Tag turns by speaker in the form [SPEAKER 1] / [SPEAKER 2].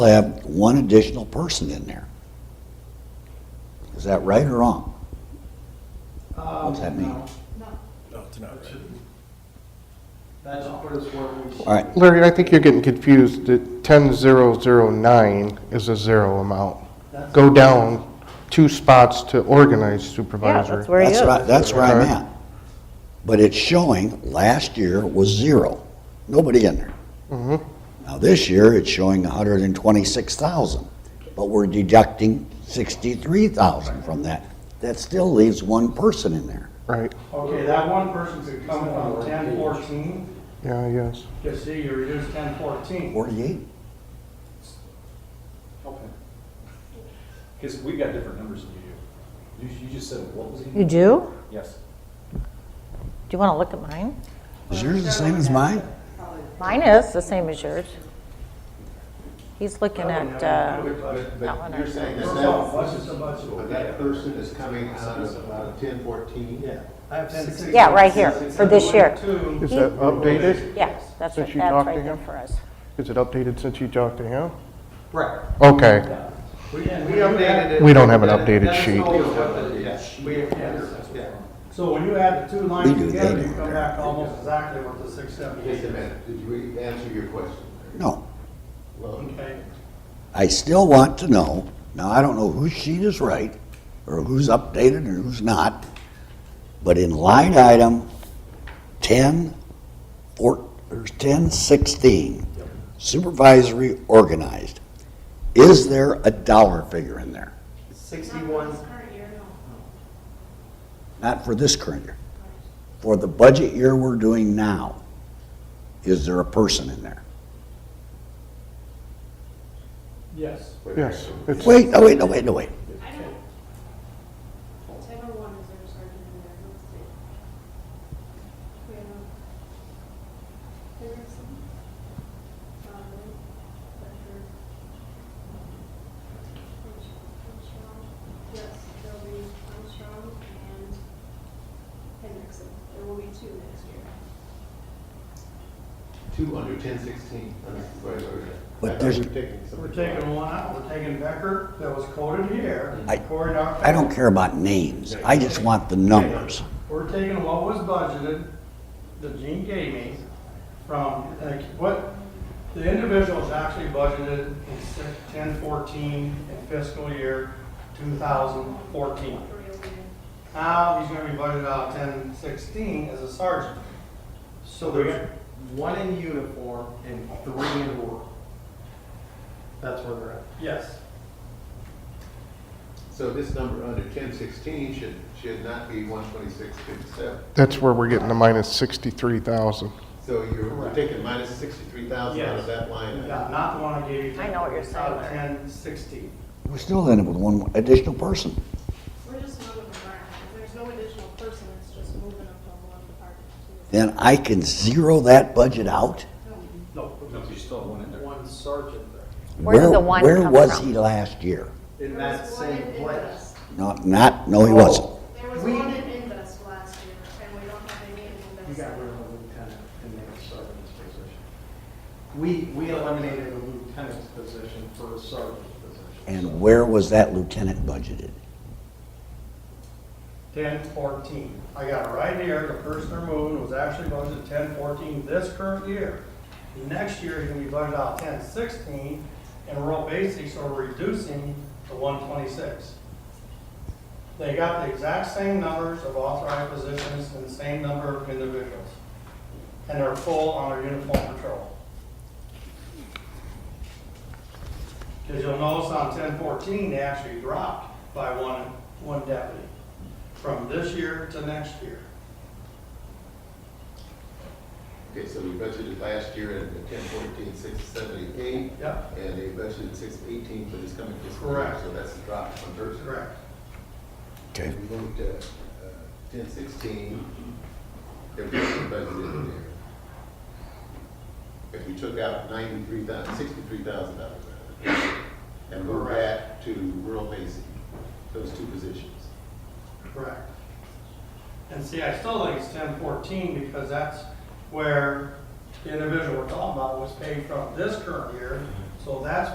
[SPEAKER 1] have one additional person in there. Is that right or wrong? What's that mean?
[SPEAKER 2] No, it's not right.
[SPEAKER 3] That's what it's worth.
[SPEAKER 1] All right,
[SPEAKER 4] Larry, I think you're getting confused. The 10009 is a zero amount. Go down two spots to organized
[SPEAKER 5] Yeah,
[SPEAKER 4] supervisor.
[SPEAKER 5] that's where he
[SPEAKER 1] that's
[SPEAKER 5] is.
[SPEAKER 1] right, that's where I'm
[SPEAKER 4] Okay.
[SPEAKER 1] at. But it's showing last year was zero, nobody in there. Now this year, it's showing hundred and twenty-six thousand, but we're deducting sixty-three thousand from that. That still leaves one person in there.
[SPEAKER 4] Right,
[SPEAKER 3] Okay, that one person could come from ten fourteen,
[SPEAKER 4] yeah, yes.
[SPEAKER 3] because see, you reduced ten fourteen.
[SPEAKER 1] Forty-eight?
[SPEAKER 2] Because we got different numbers than you do. You, you just said, what was
[SPEAKER 5] You do?
[SPEAKER 2] it?
[SPEAKER 5] Do
[SPEAKER 2] Yes.
[SPEAKER 5] you want to look at mine?
[SPEAKER 1] Is yours the same as mine?
[SPEAKER 5] Mine is the same as yours. He's looking at, uh,
[SPEAKER 6] But,
[SPEAKER 5] That one
[SPEAKER 6] but you're
[SPEAKER 5] I-
[SPEAKER 6] saying that
[SPEAKER 3] First
[SPEAKER 6] that,
[SPEAKER 3] off, what's just a bunch of-
[SPEAKER 6] but that person is coming out
[SPEAKER 7] uh,
[SPEAKER 6] of ten fourteen? Yeah.
[SPEAKER 3] I have 10.16.
[SPEAKER 5] Yeah, right here, for this year.
[SPEAKER 3] Two.
[SPEAKER 4] Is that
[SPEAKER 5] Mm-hmm.
[SPEAKER 4] updated?
[SPEAKER 5] yeah, that's
[SPEAKER 4] Since
[SPEAKER 5] right, that's
[SPEAKER 4] you talked
[SPEAKER 5] right
[SPEAKER 4] to
[SPEAKER 5] there
[SPEAKER 4] him?
[SPEAKER 5] for us.
[SPEAKER 4] Is it updated since you talked to him?
[SPEAKER 3] Right.
[SPEAKER 4] Okay,
[SPEAKER 3] We and we updated
[SPEAKER 4] we don't have an updated sheet.
[SPEAKER 3] it. We, yes. So when you add the two
[SPEAKER 1] We
[SPEAKER 3] lines
[SPEAKER 1] do, they
[SPEAKER 3] together,
[SPEAKER 1] do.
[SPEAKER 3] you come back to almost exactly with the six
[SPEAKER 6] Just a
[SPEAKER 3] seventy-eight.
[SPEAKER 6] minute, did we answer your question?
[SPEAKER 1] No.
[SPEAKER 6] Well,
[SPEAKER 3] Okay,
[SPEAKER 1] I still want to know, now I don't know whose sheet is right, or who's updated and who's not, but in line item ten, four, or ten sixteen, supervisory organized, is there a dollar figure in there?
[SPEAKER 3] sixty-one,
[SPEAKER 1] Not for this current year. For the budget year we're doing now, is there a person in there?
[SPEAKER 3] yes.
[SPEAKER 6] wait a minute.
[SPEAKER 4] Yes, it's,
[SPEAKER 1] Wait, no, wait, no, wait, no, wait.
[SPEAKER 8] I don't. Type of oh one is there a sergeant in there? Let's see. We have. There is some. Um, but her- Armstrong, yes, there'll be Armstrong and Hendrickson. There will be two next year.
[SPEAKER 6] Two under ten sixteen.
[SPEAKER 1] But there's-
[SPEAKER 3] We're taking one out, we're taking Becker that was quoted here,
[SPEAKER 1] I-
[SPEAKER 3] Cory Doctorow.
[SPEAKER 1] I don't care about names, I just want the numbers.
[SPEAKER 3] We're taking what was budgeted, that Gene gave me, from, like, what the individuals actually budgeted in six- 10, 14 in fiscal year two thousand fourteen. Now, he's gonna be budgeted out ten sixteen as a sergeant.
[SPEAKER 7] So there's one in uniform and three in work. That's where they're at.
[SPEAKER 3] Yes.
[SPEAKER 6] So this number under ten sixteen should, should not be one twenty-six fifty-seven.
[SPEAKER 4] that's where we're getting the minus 63,000.
[SPEAKER 6] So you're we're
[SPEAKER 3] Correct.
[SPEAKER 6] taking minus sixty-three thousand out
[SPEAKER 3] Yes.
[SPEAKER 6] of that line. item.
[SPEAKER 3] Yeah, not the one I gave you.
[SPEAKER 5] I know what you're saying,
[SPEAKER 3] Out of
[SPEAKER 5] Larry.
[SPEAKER 3] ten sixteen.
[SPEAKER 1] We still end up with one additional person.
[SPEAKER 8] We're just moving around. There's no additional person, it's just moving them from one department to the
[SPEAKER 1] Then I can zero that budget out?
[SPEAKER 3] No,
[SPEAKER 2] No, you still have one in there.
[SPEAKER 7] One sergeant there.
[SPEAKER 5] Where did
[SPEAKER 1] Where-
[SPEAKER 5] the one
[SPEAKER 1] Where
[SPEAKER 5] come
[SPEAKER 1] was
[SPEAKER 5] from?
[SPEAKER 1] he last year?
[SPEAKER 7] In
[SPEAKER 8] There
[SPEAKER 7] that
[SPEAKER 8] was one
[SPEAKER 7] same
[SPEAKER 8] in
[SPEAKER 7] place.
[SPEAKER 8] Invest.
[SPEAKER 1] Not, not, no, he wasn't.
[SPEAKER 8] There was
[SPEAKER 7] We-
[SPEAKER 8] one in Invest last year, and we don't have any in
[SPEAKER 7] You
[SPEAKER 8] Invest.
[SPEAKER 7] got rid of the lieutenant and made a sergeant's position. We, we eliminated the lieutenant's position for a sergeant's position.
[SPEAKER 1] And where was that lieutenant budgeted?
[SPEAKER 3] ten fourteen. I got it right here, the person they're moving was actually budgeted ten fourteen this current year. Next year, he's gonna be budgeted out ten sixteen, and rural basics are reducing to one twenty-six. They got the exact same numbers of authorized positions and the same number of individuals. And they're full on their uniform patrol. Because you'll notice on ten fourteen, they actually dropped by one, one deputy from this year to next year.
[SPEAKER 6] Okay, so we budgeted last year at ten fourteen, six seventy-eight.
[SPEAKER 3] Yep,
[SPEAKER 6] And they budgeted six eighteen for this coming fiscal year,
[SPEAKER 3] Correct.
[SPEAKER 6] so that's a drop from Thursday.
[SPEAKER 3] correct.
[SPEAKER 1] Okay.
[SPEAKER 6] We moved to uh, ten sixteen, if we budgeted in there. If we took out ninety-three thousand, sixty-three thousand dollars out of it, and moved that to rural basic, those two positions.
[SPEAKER 3] Correct. And see, I still think it's ten fourteen because that's where the individual we're talking about was paid from this current year. So that's